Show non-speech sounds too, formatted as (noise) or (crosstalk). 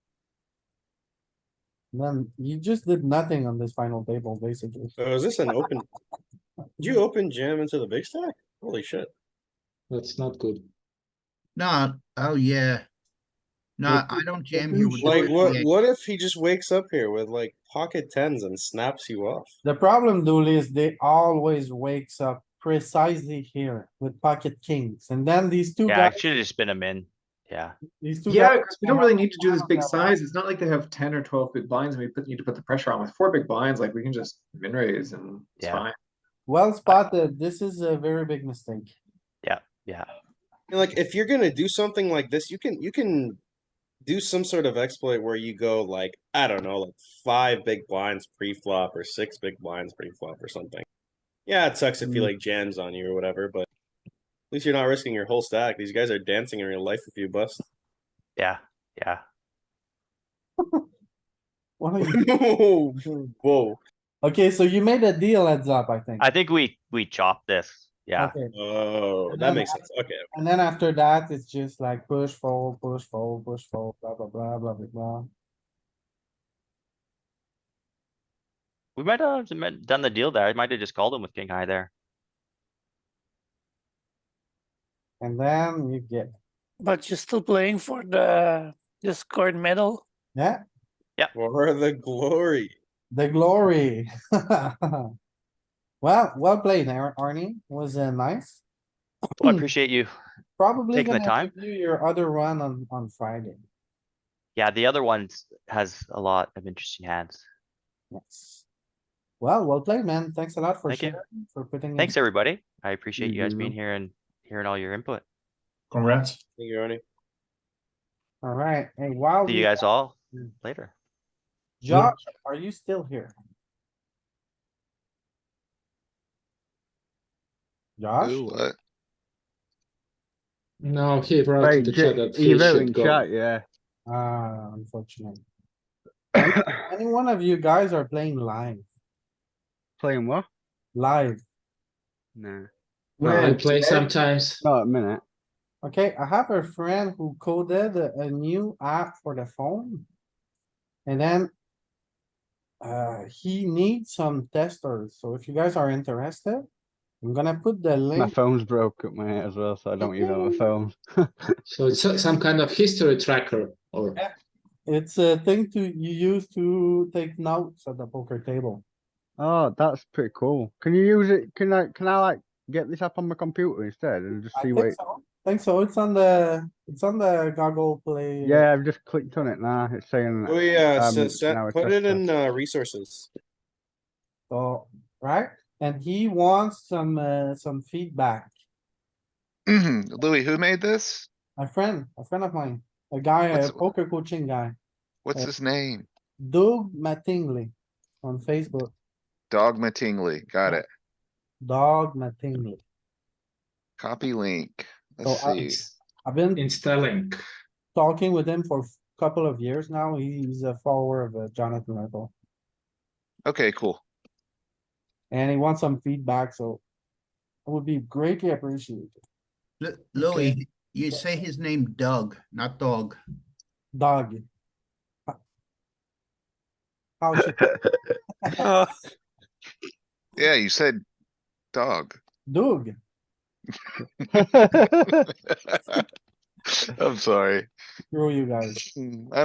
Then you just did nothing on this final table, basically. So is this an open? Did you open jam into the big stack? Holy shit. That's not good. No, oh yeah. No, Like, I don't jam you here with. should- Like the what, ace. what if he just wakes up here with like pocket tens and snaps you off? The problem, Dooley, is they always wakes up precisely here with pocket kings, and then these two Yeah, guys, it should have just been a min. Yeah, these two Yeah, guys. because we don't really need to do this big size. It's not like they have ten or twelve big blinds and we put, need to put the pressure on with four big blinds, like we can just min raise and it's Yeah. fine. Well spotted, this is a very big mistake. (laughs) yeah. And, Like if you're gonna do something like this, you can, you can. Do some sort of exploit where you go like, I don't know, like five big blinds pre-flop or six big blinds pre-flop or something. Yeah, it sucks if he Mm. like jams on you or whatever, but. At least you're not risking your whole stack. These guys are dancing in real life if you (laughs) bust. Yeah, yeah. What are you- Whoa. Okay, so you made a deal heads up, I think. I think we, we chop this. Yeah, Mm. Okay, Oh, And that then makes sense. Okay. and then after that, it's just like push, fold, push, fold, push, fold, blah, blah, blah, blah, blah, blah. we might have done- done the deal there. I might have just called him with king high there. And then you get, But you're still playing for the the scored medal. yeah, For the glory. The glory. (laughs) Well, well played, Ar- Arnie. Was uh, nice. Well, I appreciate you. Probably Taking the gonna time. do your other run on, on Friday. Yeah, the other one has a lot of interesting hands. Yes. Well, well played, man. Thanks a lot for Thank you. sharing, for putting. in- Thanks, everybody. I appreciate you guys being Mhm. here and hearing all your input. Congrats. Thank you, Ernie. Alright, hey, wow. See you guys all later. Josh, are you still here? Josh? Do what? No, he wrote Right, to ju- chat that he he wrote should in go. chat, yeah. Ah, unfortunate. (coughs) Any any one of you guys are playing live, Playing what? live. No. No, we Right, play sometimes. Not a minute. Okay, I have a friend who coded a a new app for the phone. And then. Uh, he needs some testers, so if you guys are interested, I'm gonna put the My link. phone's broke up, mate, as well, so I don't use it on my phone. So it's so- some kind of history tracker or Yeah. It's a thing to, you use to take notes at the poker table. Oh, that's pretty cool. Can you use it? Can I, can I like get this app on my computer instead and just I see think what? it- so. Think so, it's on the, it's on the goggle play. Yeah, I've just clicked on it now. It's saying. Oh yeah, um, so it's set- now a put test it in test. uh, resources. So, right? And he wants some, uh, some feedback. Louis, who made this? A friend, a friend of mine, a guy, a What's- poker coaching guy. What's Uh, his name? Doug Mattingly on Facebook. Dogma Tingley. Got Yeah. it. Dog Mattingly. Copy link. Let's So oh, I- see. I've been installing. talking with him for a couple of years now. He's a follower of uh, Jonathan Merkel. Okay, cool. And he wants some feedback, so it would be greatly appreciated. Lu- Louis, you say his name Doug, not dog. Dog. How should Oh, Yeah, you said dog. (laughs) Doug? I'm sorry. Screw you guys. Mm,